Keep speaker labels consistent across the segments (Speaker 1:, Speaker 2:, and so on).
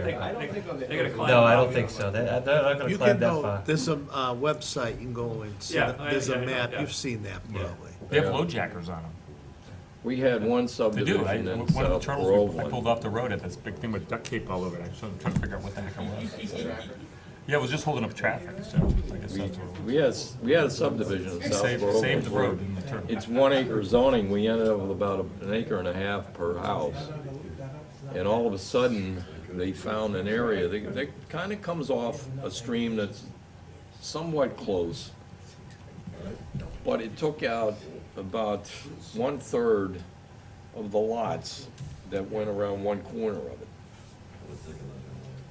Speaker 1: they-
Speaker 2: I don't
Speaker 1: they-
Speaker 2: think on the-
Speaker 1: They're gonna climb.
Speaker 3: No, I don't
Speaker 1: up.
Speaker 3: think so. They're they're not gonna
Speaker 4: You can
Speaker 3: climb that
Speaker 4: go,
Speaker 3: far.
Speaker 4: there's a uh, website, you can go and see,
Speaker 1: Yeah,
Speaker 4: that-
Speaker 1: I-
Speaker 4: there's
Speaker 1: yeah,
Speaker 4: a
Speaker 1: I know,
Speaker 4: map,
Speaker 1: yeah.
Speaker 4: you've seen that
Speaker 3: Yeah.
Speaker 4: probably.
Speaker 5: They have low jackers on them.
Speaker 2: We had one
Speaker 5: They do. I,
Speaker 2: subdivision in
Speaker 5: one of the
Speaker 2: South
Speaker 5: turtles, we- I
Speaker 2: Groveland.
Speaker 5: pulled off the road at this big thing with duct tape all over it. I was trying to figure out what the heck it was. Yeah, it was just holding up traffic, so I guess that's what it
Speaker 2: We had, s- we had a subdivision in
Speaker 5: was.
Speaker 2: South
Speaker 5: Saved, saved
Speaker 2: Groveland.
Speaker 5: the road
Speaker 2: where
Speaker 5: and the turtle.
Speaker 2: It's one acre zoning, we ended up with about an acre and a half per house. And all of a sudden, they found an area that, that kind of comes off a stream that's somewhat close. But it took out about one-third of the lots that went around one corner of it.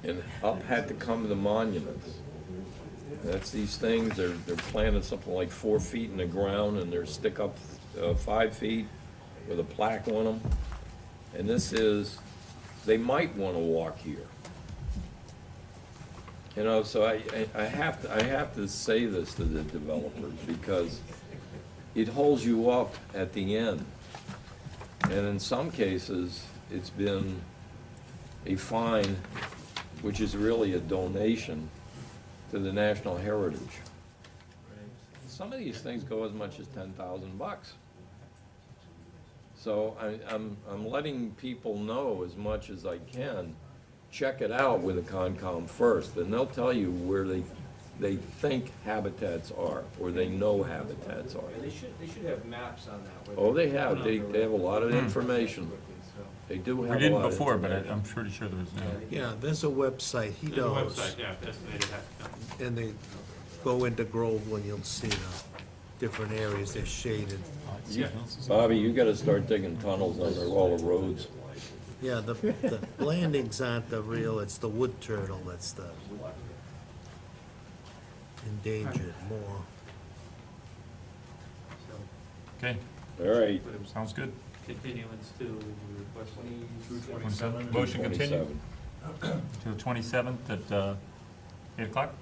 Speaker 2: And up had to come the monuments. That's these things, they're, they're planted something like four feet in the ground and they're stick up, uh, five feet with a plaque on them. And this is, they might wanna walk here. You know, so I, I, I have to, I have to say this to the developers because it holds you up at the end. And in some cases, it's been a fine, which is really a donation to the national heritage. Some of these things go as much as ten thousand bucks. So I, I'm, I'm letting people know as much as I can, check it out with the Concom first, and they'll tell you where they, they think habitats are, or they know habitats are.
Speaker 6: They should, they should have maps on that. Hmm.
Speaker 2: Oh, they have, they, they have a lot of information, they do
Speaker 5: Hmm. We
Speaker 2: have a
Speaker 5: didn't
Speaker 2: lot of.
Speaker 5: before, but I-
Speaker 2: information.
Speaker 5: I'm pretty sure there was, uh, no.
Speaker 4: Yeah, there's a website, he
Speaker 1: There's a
Speaker 4: knows,
Speaker 1: website, yeah, that's, they have,
Speaker 4: and they go into Groveland, you'll see the different areas, they're shaded.
Speaker 2: You- Bobby, you gotta start digging tunnels under all the roads.
Speaker 4: Yeah, the, the landings aren't the real, it's the wood turtle that's the endangered more.
Speaker 5: Okay,
Speaker 2: All right.
Speaker 5: sounds good.
Speaker 1: continuance to request.
Speaker 5: Motion continued
Speaker 2: 27.
Speaker 5: to the twenty-seventh at, uh, eight o'clock?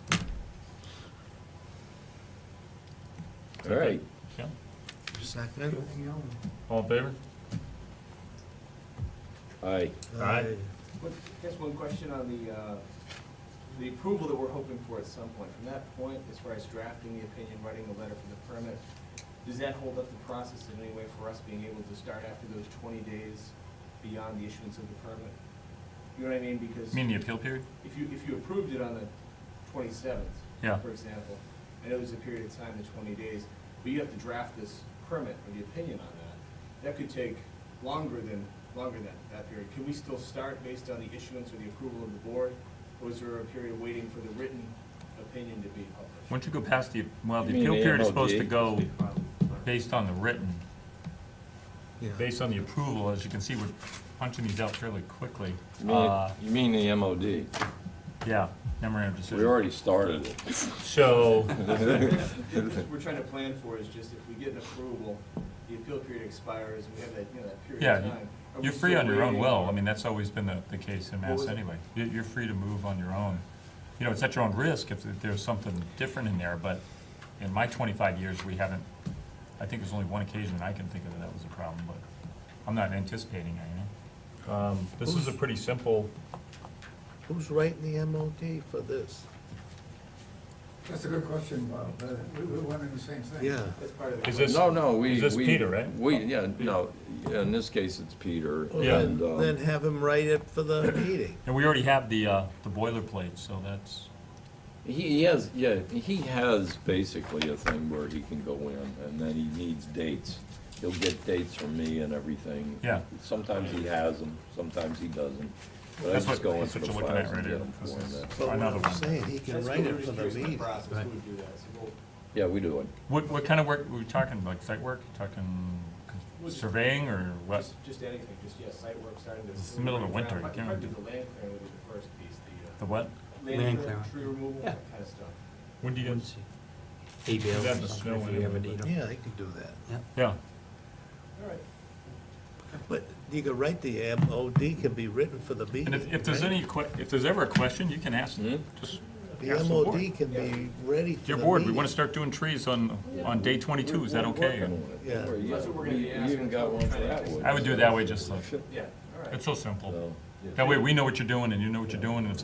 Speaker 2: All right,
Speaker 5: Yeah,
Speaker 4: Second?
Speaker 5: all in favor?
Speaker 2: aye.
Speaker 5: Aye.
Speaker 4: Uh,
Speaker 6: Just one question on the, uh, the approval that we're hoping for at some point. From that point, as far as drafting the opinion, writing the letter for the permit, does that hold up the process in any way for us being able to start after those twenty days beyond the issuance of the permit? You know what I mean? Because
Speaker 5: You mean the appeal period?
Speaker 6: if you, if you approved it on the twenty-seventh,
Speaker 5: Yeah.
Speaker 6: for example, I know there's a period of time, the twenty days, but you have to draft this permit or the opinion on that. That could take longer than, longer than that period. Can we still start based on the issuance or the approval of the board? Or is there a period waiting for the written opinion to be published?
Speaker 5: Once you go past the, well, the
Speaker 2: You mean
Speaker 5: appeal
Speaker 2: the
Speaker 5: period is supposed to
Speaker 2: MLG?
Speaker 5: go based on the written,
Speaker 4: Yeah.
Speaker 5: based on the approval, as you can see, we're punching these out fairly quickly.
Speaker 2: You mean,
Speaker 5: Uh,
Speaker 2: you mean the MOD?
Speaker 5: yeah, memorandum of
Speaker 2: We
Speaker 5: decision.
Speaker 2: already started it.
Speaker 5: So,
Speaker 6: What we're trying to plan for is just if we get an approval, the appeal period expires, and we have that, you know, that period
Speaker 5: yeah,
Speaker 6: of time.
Speaker 5: you-
Speaker 6: Are we
Speaker 5: you're free
Speaker 6: still
Speaker 5: on your own
Speaker 6: waiting?
Speaker 5: will, I mean, that's always been the, the case in
Speaker 6: What
Speaker 5: Mass
Speaker 6: was-
Speaker 5: anyway. You're, you're free to move on your own. You know, it's at your own risk if there's something different in there, but in my twenty-five years, we haven't, I think there's only one occasion I can think of that that was a problem, but I'm not anticipating it, you know? Um, this is a pretty simple,
Speaker 4: Who's writing the MOD for this?
Speaker 7: That's a good question, Bob. Uh, We we were wondering the same thing.
Speaker 4: Yeah.
Speaker 6: That's part of the.
Speaker 5: is this?
Speaker 2: No, no, we.
Speaker 5: Is this
Speaker 2: we-
Speaker 5: Peter, right?
Speaker 2: We, yeah, no, in this case, it's Peter.
Speaker 4: Well,
Speaker 5: Yeah.
Speaker 4: then-
Speaker 2: and, um,
Speaker 4: Then have him write it for the meeting.
Speaker 5: And we already have the, uh, the boilerplate, so that's,
Speaker 2: He he has, yeah, he has basically a thing where he can go in, and then he needs dates. He'll get dates from me and everything.
Speaker 5: Yeah.
Speaker 2: Sometimes he has them, sometimes he doesn't. But I
Speaker 5: that's
Speaker 2: just
Speaker 5: what,
Speaker 2: go in
Speaker 5: that's
Speaker 2: for
Speaker 5: what
Speaker 2: the
Speaker 5: you're looking at
Speaker 2: files
Speaker 5: right
Speaker 2: and get
Speaker 5: here.
Speaker 2: them for
Speaker 5: This
Speaker 2: him.
Speaker 5: is
Speaker 2: That's-
Speaker 4: But what
Speaker 5: Another
Speaker 4: I'm
Speaker 5: one.
Speaker 4: saying, he can
Speaker 6: That's
Speaker 4: write
Speaker 6: what
Speaker 4: it
Speaker 6: we're
Speaker 4: for the
Speaker 6: curious about
Speaker 4: meeting.
Speaker 6: process, who would do that? So we'll-
Speaker 2: Yeah, we do it.
Speaker 5: What, what kind of work, were we talking, like site work, talking surveying or what?
Speaker 6: Just, just anything, just, yeah, site work starting to.
Speaker 5: It's the middle of the winter, you can't
Speaker 6: Probably
Speaker 5: do-
Speaker 6: the land clearing would be the first piece,
Speaker 5: The what?
Speaker 6: the, uh, land clearing, tree removal, that kind of stuff.
Speaker 5: When do you guys?
Speaker 8: email
Speaker 5: That's
Speaker 8: or something
Speaker 5: a snow
Speaker 8: if you ever
Speaker 5: animal,
Speaker 8: need
Speaker 5: but-
Speaker 8: them.
Speaker 4: Yeah, he can do that.
Speaker 5: Yeah,
Speaker 6: All right.
Speaker 4: But you can write the MOD can be written for the meeting.
Speaker 5: and if, if there's
Speaker 4: right?
Speaker 5: any que, if there's ever a question, you can ask,
Speaker 2: Hmm?
Speaker 5: just
Speaker 4: The
Speaker 5: ask the board.
Speaker 4: MOD can be ready for the
Speaker 5: Dear
Speaker 4: meeting.
Speaker 5: board, we wanna start doing trees on, on day twenty-two, is that okay?
Speaker 4: Yeah.
Speaker 2: Or you-
Speaker 6: That's what we're gonna
Speaker 2: you-
Speaker 6: be
Speaker 2: you
Speaker 6: asking.
Speaker 2: even got one for that wood.
Speaker 5: I would do it that way, just so,
Speaker 6: Yeah, all right.
Speaker 5: it's so simple.
Speaker 2: So,
Speaker 5: That way, we know what you're doing, and you know what you're doing, and if